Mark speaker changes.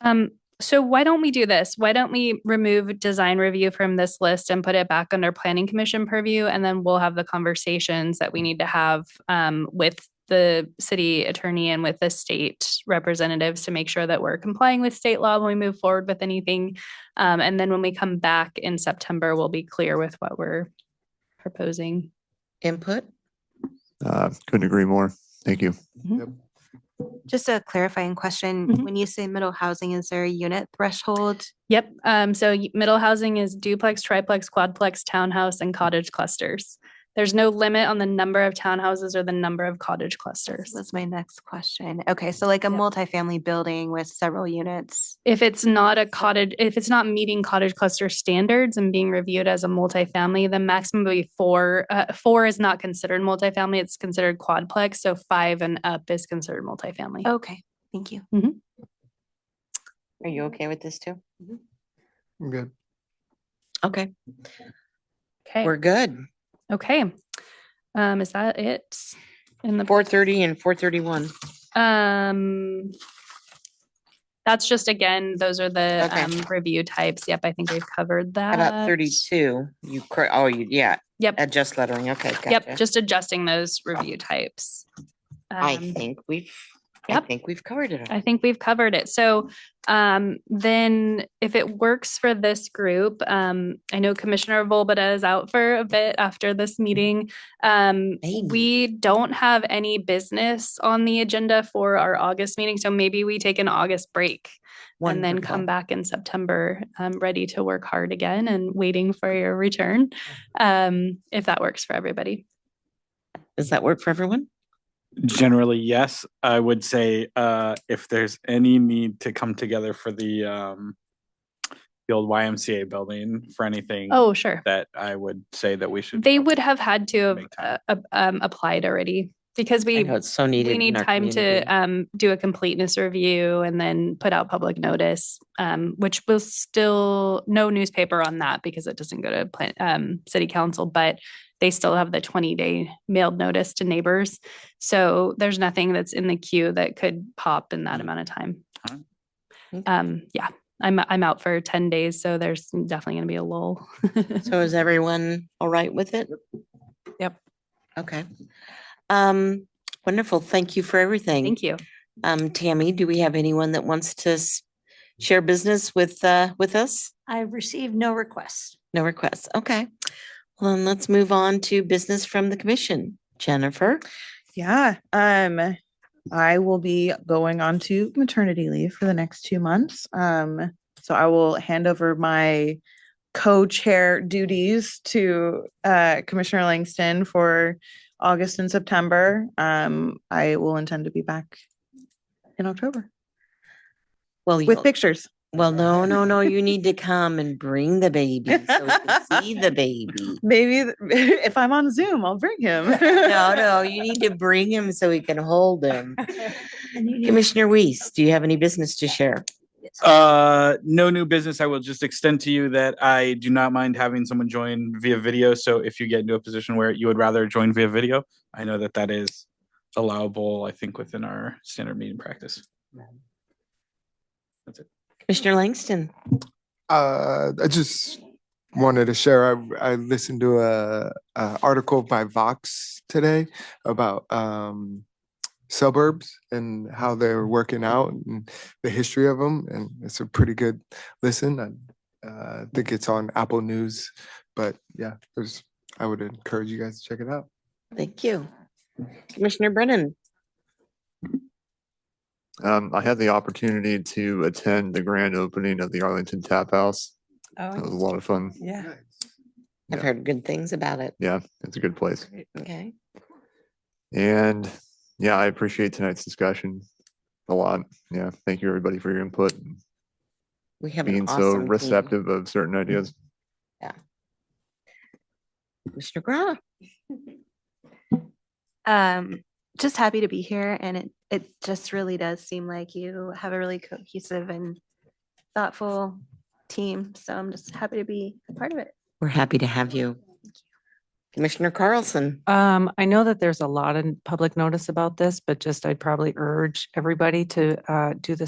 Speaker 1: Um, so why don't we do this? Why don't we remove design review from this list and put it back under planning commission purview? And then we'll have the conversations that we need to have um, with the city attorney and with the state representatives to make sure that we're complying with state law when we move forward with anything. Um, and then when we come back in September, we'll be clear with what we're proposing.
Speaker 2: Input?
Speaker 3: Uh, couldn't agree more. Thank you.
Speaker 4: Just a clarifying question.
Speaker 5: Mm-hmm.
Speaker 1: Mhm.
Speaker 4: When you say middle housing, is there a unit threshold?
Speaker 1: Yep. Um, so y- middle housing is duplex, triplex, quadplex, townhouse, and cottage clusters. There's no limit on the number of townhouses or the number of cottage
Speaker 4: This
Speaker 1: clusters.
Speaker 4: was my next question. Okay, so like a
Speaker 1: Yep.
Speaker 4: multifamily building with several units.
Speaker 1: If it's not a cottage, if it's not meeting cottage cluster standards and being reviewed as a multifamily, the maximum would be four. Uh, four is not considered multifamily; it's considered quadplex. So five and up is considered multifamily.
Speaker 4: Okay, thank you.
Speaker 2: Are you okay with this too?
Speaker 6: I'm good.
Speaker 2: Okay,
Speaker 1: Okay.
Speaker 2: we're good.
Speaker 1: Okay. Um, is that it? In the
Speaker 2: Four thirty and four thirty-one.
Speaker 1: Um, that's just again, those are the
Speaker 2: Okay.
Speaker 1: um, review types. Yep, I think we've covered that.
Speaker 2: About thirty-two, you, cor- oh, you, yeah,
Speaker 1: Yep,
Speaker 2: adjust lettering, okay.
Speaker 1: yep,
Speaker 2: gotcha.
Speaker 1: just adjusting those review types.
Speaker 2: I
Speaker 1: Um,
Speaker 2: think we've, I
Speaker 1: yep.
Speaker 2: think we've covered it. all.
Speaker 1: I think we've covered it. So um, then if it works for this group, um, I know Commissioner Volbada is out for a bit after this meeting. Um,
Speaker 2: Maybe.
Speaker 1: we don't have any business on the agenda for our August meeting, so maybe we take an August break and then come
Speaker 2: Wonderful.
Speaker 1: back in September, um, ready to work hard again and waiting for your return. Um, if that works for everybody.
Speaker 2: Does that work for everyone?
Speaker 7: Generally, yes. I would say uh, if there's any need to come together for the um, the old YMCA building for anything
Speaker 1: Oh, sure.
Speaker 7: that I would say Mm. that we should.
Speaker 1: They
Speaker 7: come
Speaker 1: would
Speaker 7: to-
Speaker 1: have had to have
Speaker 7: Make
Speaker 1: uh,
Speaker 7: time.
Speaker 1: uh, um, applied already because
Speaker 2: I
Speaker 1: we,
Speaker 2: know it's so needed.
Speaker 1: we
Speaker 2: in
Speaker 1: need
Speaker 2: our
Speaker 1: time to,
Speaker 2: community.
Speaker 1: um, do a completeness review and then put out public notice. Um, which will still, no newspaper on that because it doesn't go to plan, um, city council, but they still have the twenty day mailed notice to neighbors. So there's nothing that's in the queue that could pop in
Speaker 2: Mm.
Speaker 1: that amount of time.
Speaker 7: Alright.
Speaker 2: Okay.
Speaker 1: Um, yeah, I'm, I'm out for ten days, so there's definitely gonna be a lull.
Speaker 2: So is everyone all right with it?
Speaker 4: Yep.
Speaker 2: Okay. Um, wonderful. Thank you for everything.
Speaker 1: Thank you.
Speaker 2: Um, Tammy, do we have anyone that wants to s- share business with, uh, with us?
Speaker 5: I've received no requests.
Speaker 2: No requests. Okay. Well, then let's move on to business from the commission. Jennifer?
Speaker 8: Yeah, um, I will be going on to maternity leave for the next two months. Um, so I will hand over my co-chair duties to uh, Commissioner Langston for August and September. Um, I will intend to be back in October
Speaker 2: Well,
Speaker 8: with
Speaker 2: you,
Speaker 8: pictures.
Speaker 2: well, no, no, no, you need to come and bring the baby. so we can See the baby.
Speaker 8: Maybe th- if I'm on Zoom, I'll bring him.
Speaker 2: No, no, you need to bring him so we can hold him.
Speaker 5: And you need-
Speaker 2: Commissioner Weiss, do you have any business to share?
Speaker 7: Uh, no new business. I will just extend to you that I do not mind having someone join via video. So if you get into a position where you would rather join via video, I know that that is allowable. I think within our standard meeting practice. That's it.
Speaker 2: Commissioner Langston?
Speaker 6: Uh, I just wanted to share. I, I listened to a, a article by Vox today about um, suburbs and how they're working out and the history of them, and it's a pretty good listen. I uh, think it's on Apple News, but yeah, it was. I would encourage you guys to check it out.
Speaker 2: Thank you. Commissioner Brennan?
Speaker 3: Um, I had the opportunity to attend the grand opening of the Arlington Tap House. That was a lot of fun.
Speaker 8: Yeah.
Speaker 2: I've
Speaker 3: Yeah.
Speaker 2: heard good things about it.
Speaker 3: Yeah, it's a good place.
Speaker 2: Okay.
Speaker 3: And yeah, I appreciate tonight's discussion a lot. Yeah, thank you everybody for your input, and
Speaker 2: We have an
Speaker 3: being so
Speaker 2: awesome team.
Speaker 3: receptive of
Speaker 6: Mm.
Speaker 3: certain ideas.
Speaker 2: Commissioner Gra?
Speaker 4: Um, just happy to be here and it, it just really does seem like you have a really cohesive and thoughtful team. So I'm just happy to be a part of it.
Speaker 2: We're happy to have you. Commissioner Carlson?
Speaker 9: Um, I know that there's a lot of public notice about this, but just I'd probably urge everybody to, uh, do the